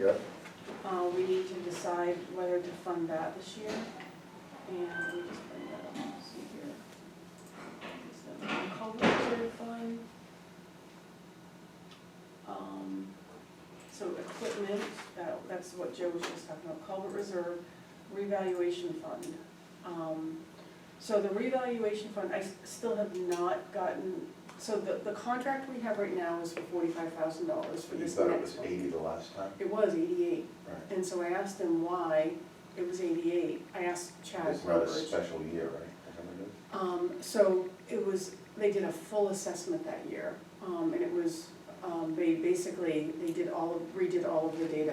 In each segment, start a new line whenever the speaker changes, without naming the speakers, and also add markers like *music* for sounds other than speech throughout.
Yeah.
Uh, we need to decide whether to fund that this year, and let me just bring that up, see here. Is that the culvert reserve fund? Um, so equipment, that, that's what Joe was just talking about, culvert reserve, revaluation fund. Um, so the revaluation fund, I s- still have not gotten, so the, the contract we have right now is for forty-five thousand dollars for
You
this next
thought
one.
it was eighty the last time?
It was eighty-eight.
Right.
And so I asked him why it was eighty-eight, I asked Chad
It's not a
Burbridge.
special year, right? Is that what it is?
Um, so it was, they did a full assessment that year, um, and it was, um, they basically, they did all, of- redid all of the data.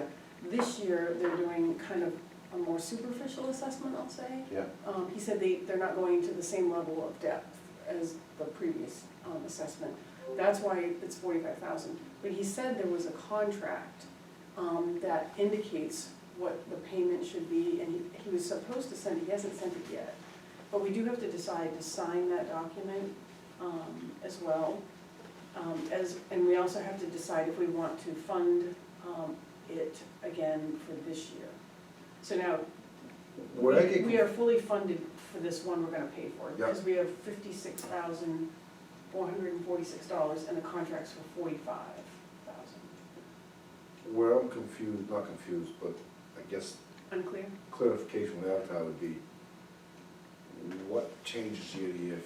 This year, they're doing kind of a more superficial assessment, I'll say.
Yeah.
Um, he said they, they're not going to the same level of depth as the previous, um, assessment. That's why it's forty-five thousand. But he said there was a contract, um, that indicates what the payment should be, and he, he was supposed to send it, he hasn't sent it yet. But we do have to decide to sign that document, um, as well. Um, as, and we also have to decide if we want to fund, um, it again for this year. So now,
What I
we-
get,
We are fully funded for this one we're gonna pay for,
Yep.
because we have fifty-six thousand, four hundred and forty-six dollars, and the contract's for forty-five thousand.
where I'm confused, not confused, but I guess
Unclear?
clarification without that would be, what changes year to year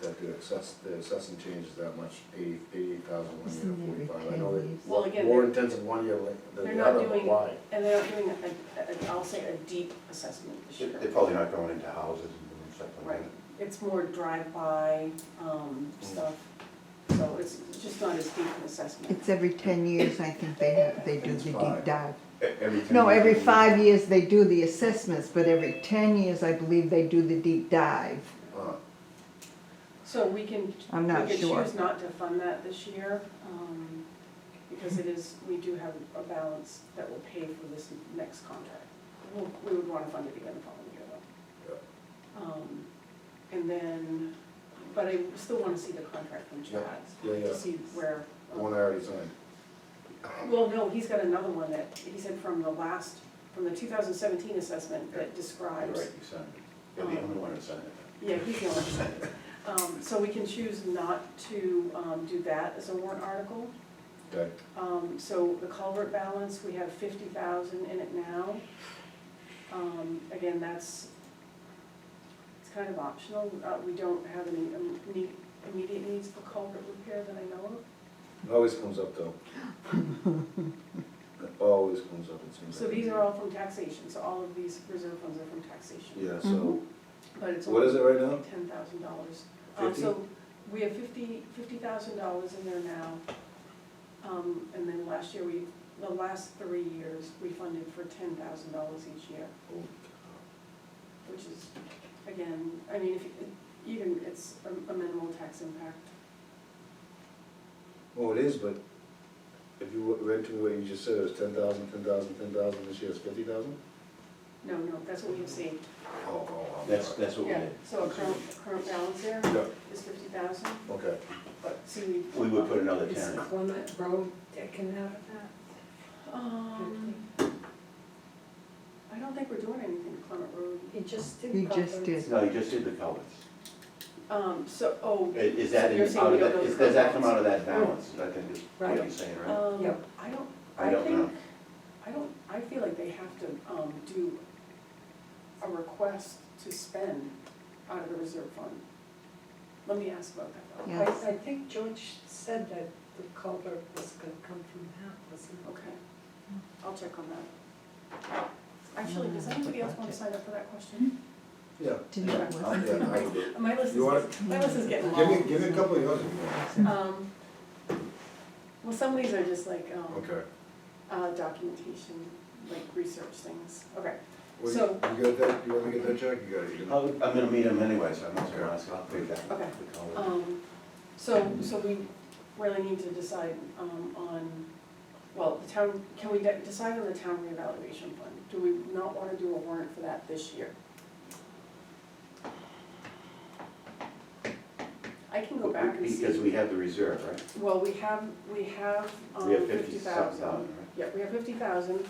that the assess, the assessing changes that much, eighty, eighty-eight thousand
Isn't
one year,
it
forty-five, I know that.
Well, again,
More
they're-
intensive one year
they're
than the
not
other,
doing-
*laughs*
why?
And they're not doing a, a, a- I'll say a deep assessment this
They-
year.
They're probably not going into houses and stuff like
Right,
that.
it's more drive-by, um,
Mm.
stuff, so it's just not as deep an assessment.
It's every ten years, I think they have, they do
It's
the
five.
deep dive.
E- Every ten
No,
years
every
they do-
five years they do the assessments, but every ten years, I believe they do the deep dive.
Uh,
So we can,
I'm
we
not
could
sure.
choose not to fund that this year, um, because it is, we do have a balance that will pay for this next contract. We'll- We would wanna fund it again the following year though. Um, And then, but I still wanna see the contract from Chad,
Yeah, yeah,
to see where. um,
the one I already signed.
Well, no, he's got another one that, he said from the last, from the two thousand seventeen assessment that
You're
describes
right, you signed it. You're the only one who signed it.
Yeah, he's the only one. Um, so we can choose not to, um, do that as a warrant article.
Okay,
Um, so the culvert balance, we have fifty thousand in it now. Um, again, that's, it's kind of optional, uh, we don't have any im- need- immediate needs for culvert repair that I know of.
it always comes up
*laughs*
though. It always comes up, it seems
So
like.
these are all from taxation, so all of these reserve funds are from taxation.
Yeah, so,
But
Mm-hmm.
it's
what
only
is it right now?
ten thousand dollars. Um,
Fifty?
so we have fifty, fifty thousand dollars in there now. Um, and then last year, we, the last three years, we funded for ten thousand dollars each year, which is, again, I mean, if, you- even it's a- a minimal tax impact.
Well, it is, but if you read to me what you just said, it was ten thousand, ten thousand, ten thousand, this year it's fifty thousand?
No, no, that's what we have saved.
Oh, oh, oh.
That's, that's what we
Yeah,
did.
so a current, current balance there
Yeah,
is fifty thousand,
okay.
but see, we.
We would put another
Is
ten.
Clement Road taken out of that?
Um, I don't think we're doing anything to Clement Road.
He just did.
He just
culverts.
did.
No, you just did the culverts.
Um, so, oh,
I- Uh, Is
So
that,
you're
in-
saying
out
we
of
don't
that,
know
is-
the
does that come
culverts?
out of that balance, I think is what
Right.
you're saying, right?
Um,
Yep.
I don't,
I
I
don't know.
think, I don't, I feel like they have to, um, do a request to spend out of the reserve fund. Let me ask about that though.
I,
Yes.
I think George said that the culvert was gonna come from that, wasn't it?
Okay, I'll check on that. Actually, does anybody else want to sign up for that question?
Yeah.
Didn't it
Yeah,
work?
Yeah, I would do it.
My list
You want
is, my list is getting
Give me,
long.
give me a couple of yours if you
Um, well, some of these are just like, um,
want. Okay.
uh, documentation, like research things, okay.
Well,
So-
You got that, you wanna get that check, you got it, you got
I'll- I'm gonna meet him anyway, so I'm not gonna ask, I'll pay that.
Okay.
the culvert.
Um, so, so we really need to decide, um, on, well, the town, can we de- decide on the town reevaluation fund? Do we not wanna do a warrant for that this year? I can go back and see.
Because we have the reserve, right?
Well, we have, we have
We have
um, fifty
fifty-seven
thousand.
thousand, right?
Yeah, we have fifty thousand,